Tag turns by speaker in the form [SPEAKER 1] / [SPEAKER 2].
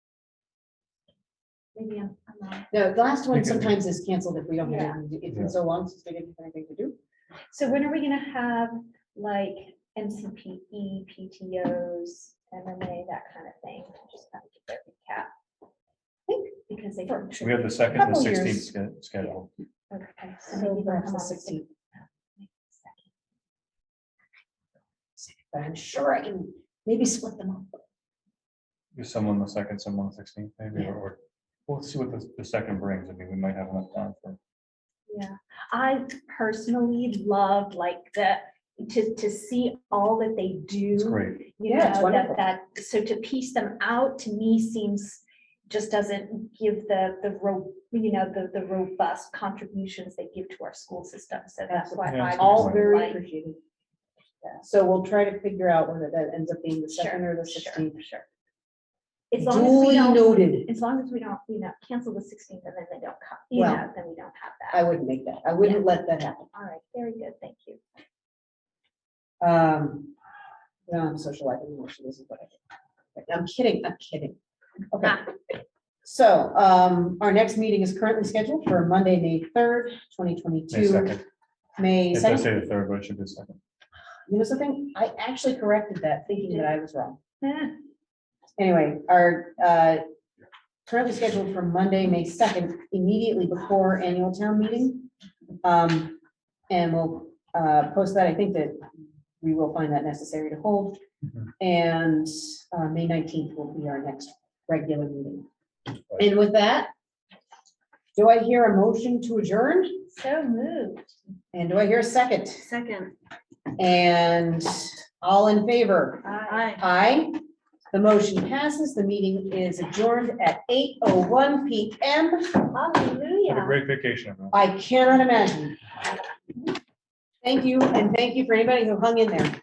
[SPEAKER 1] Maybe I'm, I'm wrong.
[SPEAKER 2] No, the last one
[SPEAKER 3] Okay.
[SPEAKER 2] sometimes is canceled if we don't, have anything to- it's
[SPEAKER 3] Yeah.
[SPEAKER 2] been so long since we didn't have anything to do.
[SPEAKER 1] So when are we gonna have like MCPE, PTOs, MMA, that kind of thing? Just kind of get their recap. I think because they.
[SPEAKER 3] We have the second, the
[SPEAKER 2] Couple years.
[SPEAKER 3] sixteenth schedule.
[SPEAKER 1] Okay, so
[SPEAKER 2] So
[SPEAKER 1] maybe they'll come
[SPEAKER 2] perhaps the
[SPEAKER 1] on the sixth.
[SPEAKER 2] sixteenth, but I'm sure I can maybe split them up.
[SPEAKER 3] Is someone the second, someone the sixteenth, maybe,
[SPEAKER 2] Yeah.
[SPEAKER 3] or, or we'll see what the, the second brings. I mean, we might have enough time for.
[SPEAKER 1] Yeah, I personally love like the, to, to see all that they do.
[SPEAKER 3] It's great.
[SPEAKER 1] you
[SPEAKER 2] Yeah, it's
[SPEAKER 1] know, that,
[SPEAKER 2] wonderful.
[SPEAKER 1] that, so to piece them out, to me seems, just doesn't give the, the ro, you know, the, the robust contributions they give to our school system, so that's why
[SPEAKER 3] Absolutely.
[SPEAKER 1] I.
[SPEAKER 3] Yeah,
[SPEAKER 2] All
[SPEAKER 3] Right.
[SPEAKER 2] very
[SPEAKER 1] like-
[SPEAKER 2] appreciated. So we'll try to figure out whether that ends up being the second or the
[SPEAKER 1] Sure,
[SPEAKER 2] sixteenth.
[SPEAKER 1] Sure. As long as we
[SPEAKER 2] Duly
[SPEAKER 1] don't,
[SPEAKER 2] noted,
[SPEAKER 1] as long as we don't, you know, cancel the sixteenth and then they don't come, you
[SPEAKER 2] Well,
[SPEAKER 1] know, then we don't have
[SPEAKER 2] I
[SPEAKER 1] that.
[SPEAKER 2] wouldn't make that, I wouldn't let that happen.
[SPEAKER 1] All right, very good, thank you.
[SPEAKER 2] Um, no, I'm social life and emotion isn't what I do. I'm kidding, I'm kidding. Okay. So, um, our next meeting is currently scheduled for Monday, May third, twenty
[SPEAKER 3] May
[SPEAKER 2] twenty-two.
[SPEAKER 3] second.
[SPEAKER 2] May
[SPEAKER 3] If I
[SPEAKER 2] second,
[SPEAKER 3] say the third, but it should be the second.
[SPEAKER 2] you know something? I actually corrected that thinking that I was wrong.
[SPEAKER 1] Eh,
[SPEAKER 2] Anyway, our, uh, currently scheduled for Monday, May second, immediately before annual town meeting. Um, and we'll, uh, post that. I think that we will find that necessary to hold.
[SPEAKER 3] Mhm.
[SPEAKER 2] And, uh, May nineteenth will be our next regular meeting.
[SPEAKER 3] Right.
[SPEAKER 2] And with that, do I hear a motion to adjourn?
[SPEAKER 1] So moved.
[SPEAKER 2] And do I hear a second?
[SPEAKER 4] Second,
[SPEAKER 2] And all in favor?
[SPEAKER 1] Aye.
[SPEAKER 2] Aye. The motion passes. The meeting is adjourned at eight oh one PM.
[SPEAKER 3] Have a
[SPEAKER 1] Hallelujah.
[SPEAKER 3] great vacation, everyone.
[SPEAKER 2] I cannot imagine. Thank you, and thank you for anybody who hung in there.